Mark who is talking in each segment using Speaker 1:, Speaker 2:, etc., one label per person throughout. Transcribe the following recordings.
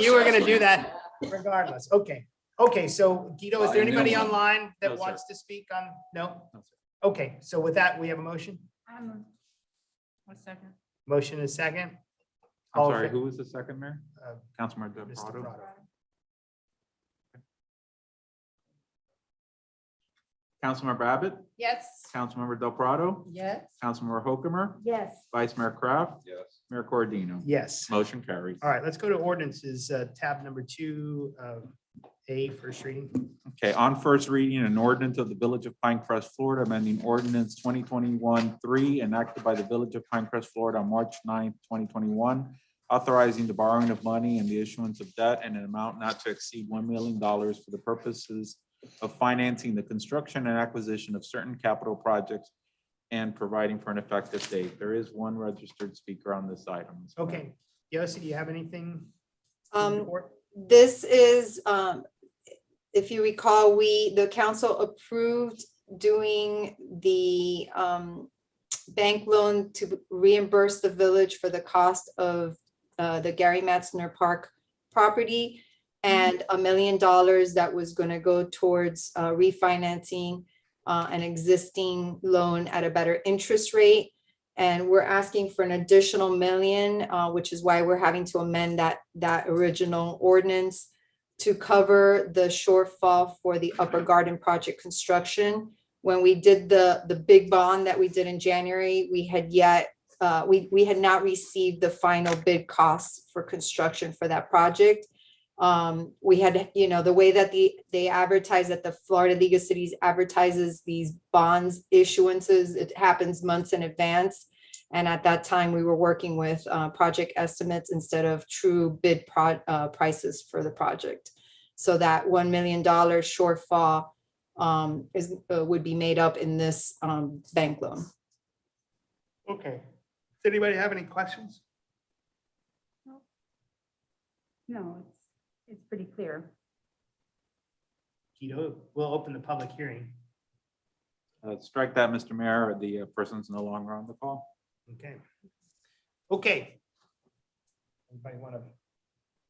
Speaker 1: You were gonna do that regardless. Okay. Okay, so Guido, is there
Speaker 2: I knew
Speaker 1: anybody
Speaker 2: it.
Speaker 1: online
Speaker 2: No,
Speaker 1: that
Speaker 2: sir.
Speaker 1: wants to speak on, no?
Speaker 2: No, sir.
Speaker 1: Okay, so with that, we have a motion.
Speaker 3: I'm, Um, one second.
Speaker 1: Motion is second.
Speaker 2: I'm
Speaker 1: All in
Speaker 2: sorry,
Speaker 1: fa-
Speaker 2: who was the second mayor?
Speaker 1: Uh,
Speaker 2: Councilmember
Speaker 1: Mr.
Speaker 2: Deverado?
Speaker 1: Prado.
Speaker 2: Councilmember Abbott?
Speaker 3: Yes.
Speaker 2: Councilmember Del Prado?
Speaker 3: Yes.
Speaker 2: Councilmember Hokumer?
Speaker 3: Yes.
Speaker 2: Vice Mayor Kraft?
Speaker 4: Yes.
Speaker 2: Mayor Cordino?
Speaker 1: Yes.
Speaker 2: Motion carries.
Speaker 1: All right, let's go to ordinances, uh, tab number two, uh, A, first reading.
Speaker 2: Okay, on first reading, an ordinance of the Village of Pinecrest, Florida, amending ordinance twenty twenty-one three enacted by the Village of Pinecrest, Florida on March 9th, twenty twenty-one, authorizing the borrowing of money and the issuance of debt in an amount not to exceed one million dollars for the purposes of financing the construction and acquisition of certain capital projects and providing for an effective date. There is one registered speaker on this item.
Speaker 1: Okay, Yossi, do you have anything? to
Speaker 5: Um,
Speaker 1: report?
Speaker 5: this is, um, if you recall, we, the council approved doing the, um, bank loan to reimburse the village for the cost of, uh, the Gary Matzner Park property and a million dollars that was gonna go towards, uh, refinancing, uh, an existing loan at a better interest rate. And we're asking for an additional million, uh, which is why we're having to amend that, that original ordinance to cover the shortfall for the Upper Garden project construction. When we did the, the big bond that we did in January, we had yet, uh, we, we had not received the final bid costs for construction for that project. Um, we had, you know, the way that the, they advertise that the Florida League of Cities advertises these bonds issuances, it happens months in advance. And at that time, we were working with uh, project estimates instead of true bid pro- uh, prices for the project. So that $1 million shortfall um, is, uh, would be made up in this um, bank loan.
Speaker 1: Okay. Does anybody have any questions?
Speaker 3: No, it's, it's pretty clear.
Speaker 1: Guido, we'll open the public hearing.
Speaker 2: Uh, Strike that, Mr. Mayor. The uh, person's no longer on the call.
Speaker 1: Okay. Okay. Anybody want to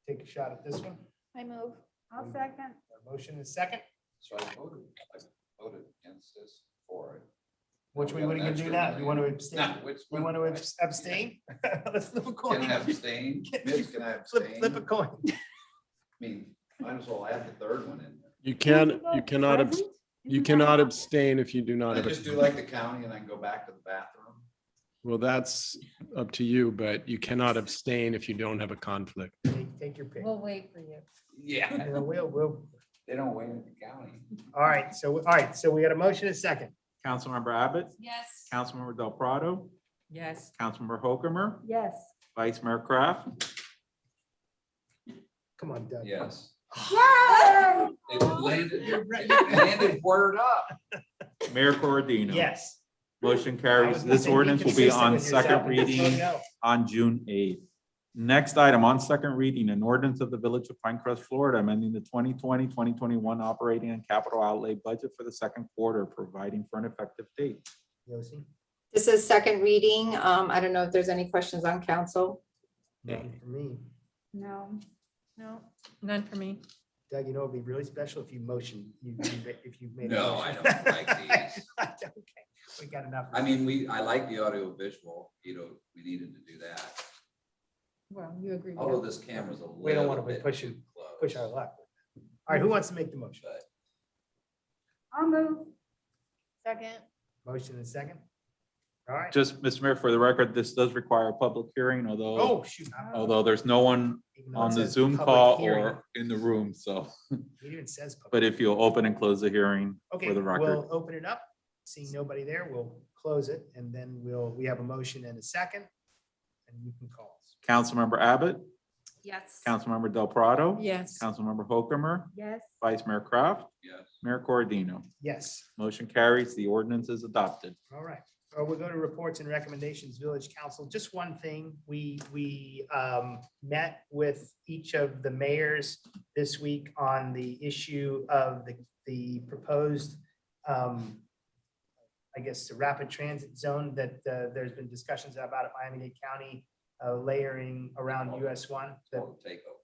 Speaker 1: take a shot at this one?
Speaker 3: I move. I'll second.
Speaker 1: Our Motion is second,
Speaker 4: So I voted, I voted against this for it.
Speaker 1: which we wouldn't even do now. You want to abstain?
Speaker 4: No, which
Speaker 1: We
Speaker 4: one?
Speaker 1: want to abstain? Let's flip a coin.
Speaker 4: Can I abstain? Mitch, can I
Speaker 1: Flip,
Speaker 4: abstain?
Speaker 1: flip a
Speaker 4: I
Speaker 1: coin.
Speaker 4: mean, might as well add the third one in there.
Speaker 6: You can, you cannot, abs- you cannot abstain if you do not.
Speaker 4: I
Speaker 6: have a-
Speaker 4: just do like the county and then go back to the bathroom.
Speaker 6: Well, that's up to you, but you cannot abstain if you don't have a conflict.
Speaker 1: Take- Take your pick.
Speaker 3: We'll wait for you.
Speaker 4: Yeah.
Speaker 1: You know, We'll, we'll,
Speaker 4: They don't win at the county.
Speaker 1: all right, so, all right, so we got a motion is second.
Speaker 2: Councilmember Abbott?
Speaker 3: Yes.
Speaker 2: Councilmember Del Prado,
Speaker 3: Yes.
Speaker 2: Councilmember Hokumer,
Speaker 3: Yes.
Speaker 2: Vice Mayor Kraft,
Speaker 1: Come on, Doug.
Speaker 4: Yes.
Speaker 3: Yes.
Speaker 4: It landed,
Speaker 1: You're right.
Speaker 4: it landed word up.
Speaker 2: Mayor Corradino.
Speaker 1: Yes. I
Speaker 2: Motion
Speaker 1: was
Speaker 2: carries.
Speaker 1: gonna
Speaker 2: This
Speaker 1: say, be
Speaker 2: ordinance will be
Speaker 1: consistent
Speaker 2: on
Speaker 1: with yourself
Speaker 2: second
Speaker 1: and just vote
Speaker 2: reading
Speaker 1: no.
Speaker 2: on June eighth. Next item on second reading, an ordinance of the Village of Pinecrest, Florida, amending the 2020, 2021 operating and capital outlay budget for the second quarter, providing for an effective date.
Speaker 1: Yossi?
Speaker 5: This is second reading. Um, I don't know if there's any questions on council.
Speaker 1: Nothing For me,
Speaker 3: No. No, none for me.
Speaker 1: Doug, you know, it'd be really special if you motioned, you, you- if you made. a
Speaker 4: No, I
Speaker 1: motion.
Speaker 4: don't like these.
Speaker 1: Okay, We got enough.
Speaker 4: I mean, we, I like the audio visual, you know, we needed to do that.
Speaker 3: Well, you agree.
Speaker 4: Although this camera's a
Speaker 1: We don't
Speaker 4: little
Speaker 1: want to
Speaker 4: bit
Speaker 1: push
Speaker 4: too
Speaker 1: it,
Speaker 4: close.
Speaker 1: push our luck. All right, who wants to make the motion?
Speaker 4: But
Speaker 3: I'll move. Second.
Speaker 1: Motion and second? All right.
Speaker 2: Just, Mr. Mayor, for the record, this does require a public hearing, although,
Speaker 1: Oh, shoot.
Speaker 2: although there's no one
Speaker 1: Even though it
Speaker 2: on the
Speaker 1: says
Speaker 2: Zoom
Speaker 1: public
Speaker 2: call
Speaker 1: hearing,
Speaker 2: or in the room, so,
Speaker 1: It even says. public.
Speaker 2: but if you'll open and close the hearing
Speaker 1: Okay,
Speaker 2: for the record.
Speaker 1: we'll open it up. Seeing nobody there, we'll close it and then we'll, we have a motion and a second. And you can call.
Speaker 2: Councilmember Abbott,
Speaker 3: Yes.
Speaker 2: Councilmember Del Prado.
Speaker 3: Yes.
Speaker 2: Councilmember Hokumer,
Speaker 3: Yes.
Speaker 2: Vice Mayor Kraft,
Speaker 4: Yes,
Speaker 2: Mayor Corradino.
Speaker 1: Yes,
Speaker 2: Motion carries. The ordinance is adopted.
Speaker 1: all right. Uh, we'll go to reports and recommendations, village council. Just one thing, we, we um, met with each of the mayors this week on the issue of the, the proposed um, I guess, the rapid transit zone that uh, there's been discussions about at Miami-Dade County uh, layering around US one, the
Speaker 4: total takeover.